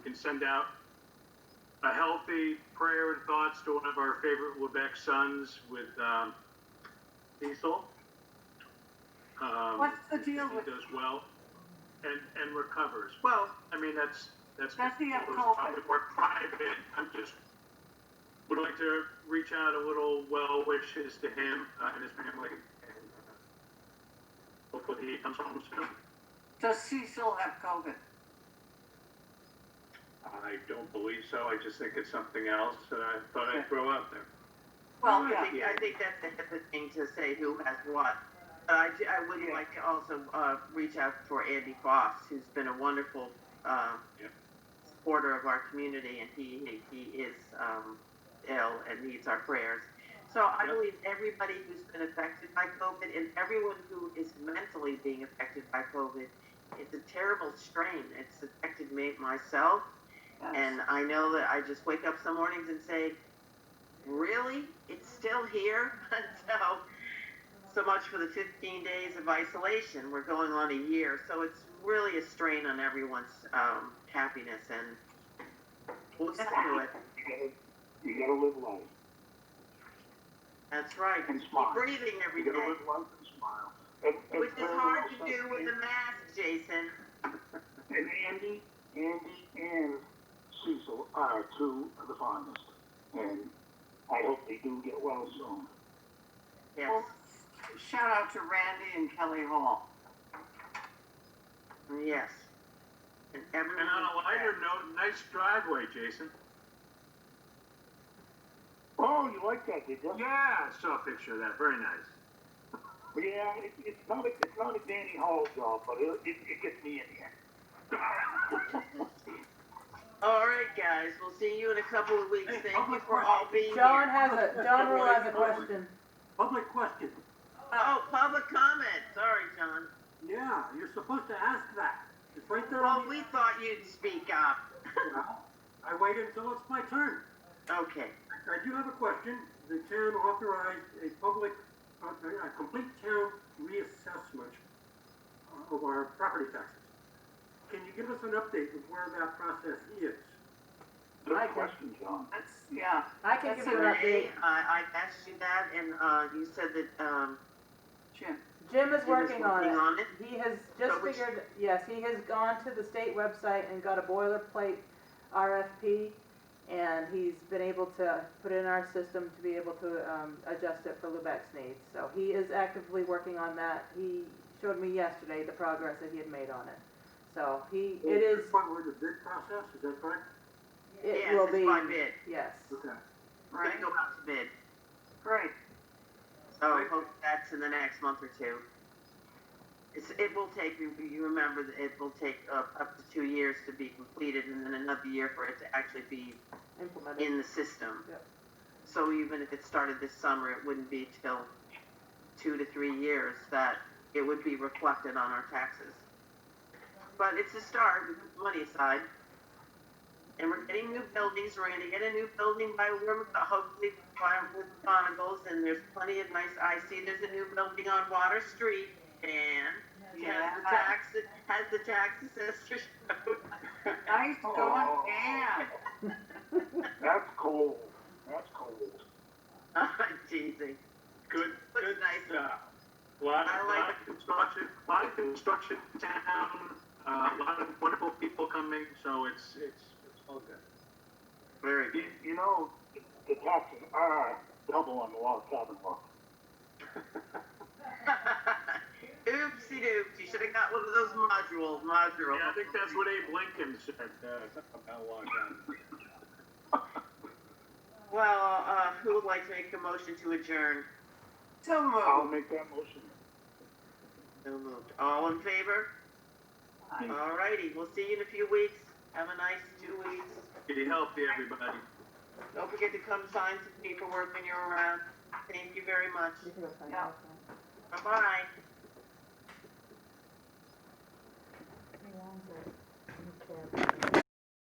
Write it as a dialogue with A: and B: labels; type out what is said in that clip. A: send out a healthy prayer and thoughts to one of our favorite Quebec sons with um, Cecil. Um,
B: What's the deal
A: he
B: with,
A: does well and and recovers. Well, I mean that's that's
B: Does he have
A: those
B: COVID?
A: probably more private. I'm just would like to reach out a little well wishes to him uh, and his family. And, uh, hopefully he comes home soon.
B: does Cecil have COVID?
A: I don't believe so. I just think it's something else that I thought I'd throw out there.
B: Well,
C: I
B: yeah,
C: think, I think that's a HIPAA thing to say who has what. But I, ju- I would
B: Yeah.
C: like to also, uh, reach out for Andy Foss, who's been a wonderful, um,
A: Yeah.
C: supporter of our community and he, he is, um, ill and needs our prayers. So I
A: Yeah.
C: believe everybody who's been affected by COVID and everyone who is mentally being affected by COVID, it's a terrible strain. It's affected me, myself.
B: yes.
C: And uh, I know that I just wake up some mornings and say, really? It's still here? so, so much for the 15 days of isolation. We're going on a year. So it's really a strain on everyone's um, happiness. And we'll get through it.
D: You gotta live life
C: That's right.
D: and smile.
C: Breathing every
D: You gotta
C: day,
D: live life and smile. And, and
C: which is
D: very
C: hard
D: well
C: to do
D: said,
C: with a mask, Jason.
D: And and Andy, Andy and Cecil are two of the finest. And I hope they do get well soon.
C: Yes.
B: Well, Shout out to Randy and Kelly Hall.
C: Yes. And everyone.
A: And on a lighter note, nice driveway, Jason.
D: Oh, you like that, did you?
A: Yeah, I saw a picture of that. Very nice.
D: Yeah, it, it's not a, it's not a Danny Hall job, but it, it, it gets me in here.
C: All right, guys. We'll see you in a couple of weeks.
D: Hey,
C: Thank you
D: public
C: for all being
E: John
C: here.
E: has a, John Rule has a question.
D: Public question.
C: Oh, public comment. Sorry, John.
D: Yeah, you're supposed to ask that. It's right there.
C: Well, we thought you'd speak up.
D: I waited until it's my turn.
C: Okay.
D: I do have a question. The town authorized a public, a, a complete town reassessment of our property taxes. Can you give us an update of where that process is?
B: I can-
D: question, John.
B: That's, yeah,
E: I can give
B: That's
E: you an
C: Renee,
E: update.
C: I, I asked you that, and uh, you said that um,
B: Jim.
E: Jim
C: Jim
E: is
C: is
E: working on
C: working
E: it.
C: on it.
E: He has
C: So
E: just
C: which-
E: figured, yes, he has gone to the state website and got a boilerplate RFP. And he's been able to put in our system to be able to, um, adjust it for Lubec's needs. So he is actively working on that. He showed me yesterday the progress that he had made on it. So he, it is,
D: Point where the bid process, is that correct?
E: it
C: Yes,
E: will
C: it's
E: be,
C: by bid.
E: yes.
D: Okay.
C: We're gonna go out to bid.
B: Great.
C: So
D: Right.
C: hope that's in the next month or two. It's, it will take, you you remember, that it will take uh, up to two years to be completed, and then another year for it to actually be
E: Implemented.
C: in the system.
E: Yep.
C: So even if it started this summer, it wouldn't be till two to three years that it would be reflected on our taxes. But it's a start, we put money aside. And we're getting new buildings, we're gonna get a new building by Warm, hopefully by with Bonagles, and there's plenty of nice, I see there's a new building on Water Street, and has the
B: Yeah.
C: tax, has the tax assessor showed.
B: uh, Nice
C: Oh.
B: going,
D: Aw.
B: Dan.
D: That's cold. That's cold.
C: Teasing.
A: Good,
C: Looks
A: good
C: nice.
A: stuff. Lot,
C: I
A: of-
C: like
A: lot of construction, lot of construction in town, uh, a lot of wonderful people coming, so it's, it's, it's all good.
C: Very
D: You, you know, the taxes are double on the log cabin law.
C: Oopsie doops, you should have got one of those modules, module.
A: Yeah, I think that's what Abe Lincoln said, uh, something about lockdown.
C: Well, uh, who would like to make a motion to adjourn?
B: So
D: I'll
B: moved.
D: make that motion.
C: So moved. All in favor?
B: Aye.
C: All righty, we'll see you in a few weeks. Have a nice two weeks.
A: Be healthy, everybody.
C: Don't forget to come sign some paperwork when you're around. Thank you very much.
E: You can go find
B: Yeah.
E: out.
C: Bye-bye.
F: belongs at, in the